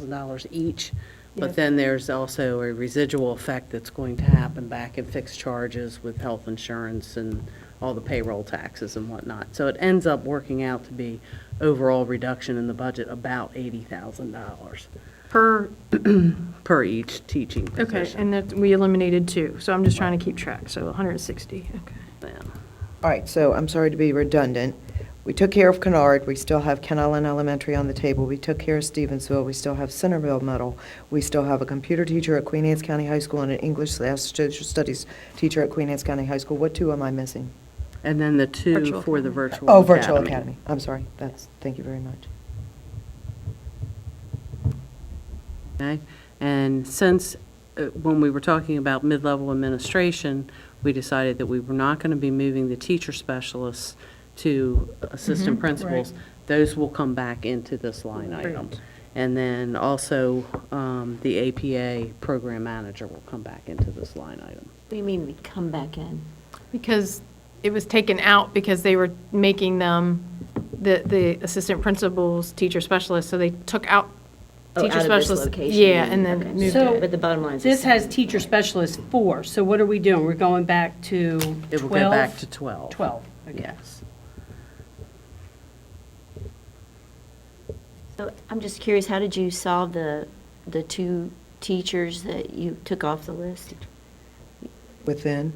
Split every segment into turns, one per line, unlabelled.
$1,000 each.
Yeah.
But then there's also a residual effect that's going to happen back in fixed charges with health insurance and all the payroll taxes and whatnot. So it ends up working out to be overall reduction in the budget about $80,000
Per,
per each teaching
okay,
position.
and that, we eliminated two, so I'm just trying to keep track, so 160, okay.
Okay.
All right, so I'm sorry to be redundant. We took care of Kennard, we still have Ken Island Elementary on the table. We took care of Stevensville, we still have Centerville Middle. We still have a computer teacher at Queen Anne's County High School and an English slash social studies teacher at Queen Anne's County High School. What two am I missing?
And then the two
Virtual
for the
academy.
virtual academy.
Oh, Virtual Academy. I'm sorry, that's, thank you very much.
Okay, and since, uh, when we were talking about mid-level administration, we decided that we were not going to be moving the teacher specialists to assistant principals. Those will come back into this line item. And then also, um, the APA program manager will come back into this line item.
What do you mean we come back in?
Because it was taken out because they were making them, the, the assistant principals, teacher specialists, so they took out
Oh, out
teacher
of this
specialists.
location,
Yeah, and
you mean,
then
okay.
moved
So-
it.
But the bottom line is. the
This has
same.
teacher specialist four, so what are we doing? We're going back to 12?
It will go back to 12.
12, okay.
Yes.
So I'm just curious, how did you solve the, the two teachers that you took off the list?
Within,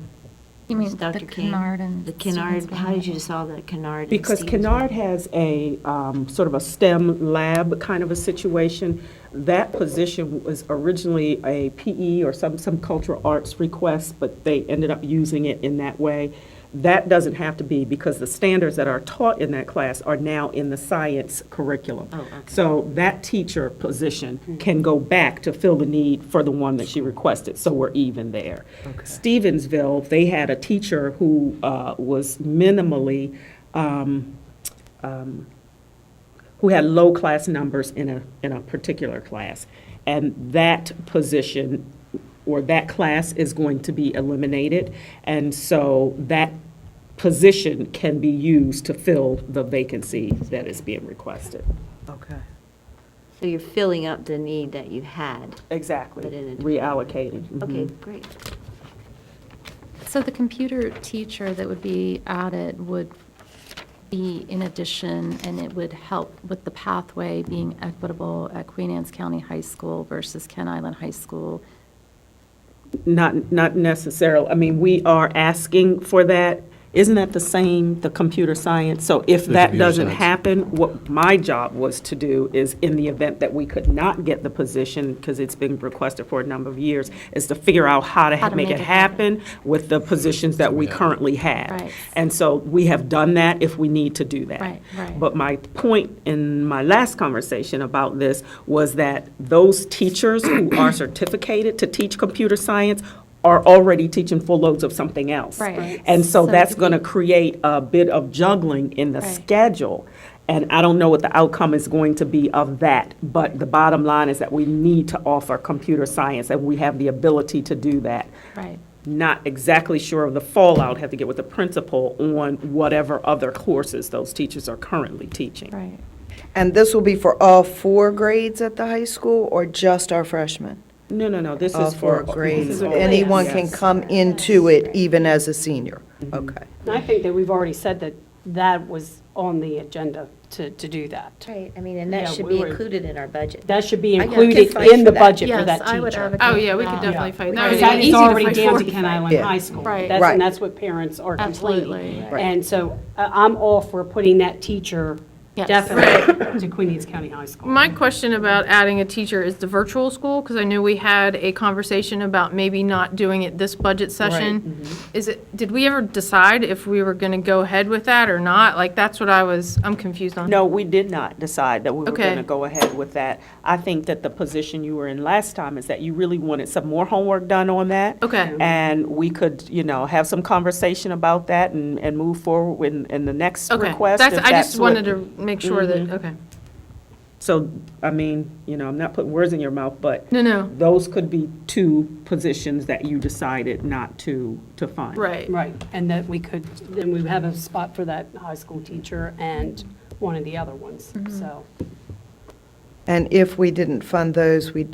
You mean the
Dr. King?
Kennard and
The Kennard,
Stevensville
how did
Middle?
you solve the Kennard? and
Because
Stevensville?
Kennard has a um, sort of a STEM lab kind of a situation. That position was originally a PE or some, some cultural arts request, but they ended up using it in that way. That doesn't have to be because the standards that are taught in that class are now in the science curriculum.
Oh, okay. Hmm.
So that teacher position can go back to fill the need for the one that she requested, so we're even there. Stevensville, they had a teacher who uh, was minimally, um, um, who had low class numbers in a, in a particular class. And that position or that class is going to be eliminated. And so that position can be used to fill the vacancy that is being requested.
okay.
So you're filling up the need that you had.
Exactly.
But in a-
Reallocating. mhm.
Okay,
Mm-hmm.
great.
So the computer teacher that would be added would be in addition, and it would help with the pathway being equitable at Queen Anne's County High School versus Ken Island High School.
Not, not necessarily, I mean, we are asking for that. Isn't that the same, the computer science? So if
The
that
computer
doesn't
science.
happen, what my job was to do is, in the event that we could not get the position, because it's been requested for a number of years, is to figure out how to
How
ha-
to
make it happen with the positions that we
Yeah.
currently have.
Right.
And so we have done that if we need to do that.
Right, right.
But my point in my last conversation about this was that those teachers who are certificated to teach computer science are already teaching full loads of something else.
Right.
And so
So
that's
do
going to
we-
create a bit of juggling in the
Right.
schedule. And I don't know what the outcome is going to be of that, but the bottom line is that we need to offer computer science, and we have the ability to do that
Right.
not exactly sure of the fallout, have to get with the principal on whatever other courses those teachers are currently teaching.
Right.
And this will be for all four grades at the high school or just our freshmen?
No, no, no, this
All
is
four
for.
grades.
Mhm.
Anyone can
Yes.
come into it even as a senior? Okay.
And I think that we've already said that that was on the agenda to, to do that.
Right, I mean, and
that Yeah, should we be were- included
in our budget.
That should be
I got
included
kicked
in
for
the
that.
budget for that teacher.
Oh, yeah, we could
Yeah.
definitely fight.
Because that is already down to Ken Island
Yeah.
High School.
Right.
That's-
Right.
And that's what parents are
Absolutely.
complaining.
Right.
And so uh, I'm all for putting that teacher
Yes.
definitely to Queen Anne's County High School.
My question about adding a teacher is the virtual school, because I knew we had a conversation about maybe not doing it this budget session. Is it, did we ever decide if we were going to go ahead with that or not? Like, that's what I was, I'm confused on.
No, we did not decide that we were
Okay.
going to go ahead with that. I think that the position you were in last time is that you really wanted some more homework done on that.
Okay.
And we could, you know, have some conversation about that and, and move forward in, in the next
Okay,
request.
that's,
if
I just
that's what- Mm-hmm.
wanted to make sure that, okay.
So, I mean, you know, I'm not putting words in your mouth, but.
No, no.
Those could be two positions that you decided not to, to fund.
Right.
Right, and that we could, then we have a spot for that high school teacher and one of the other ones, so.
And if we didn't fund those, we'd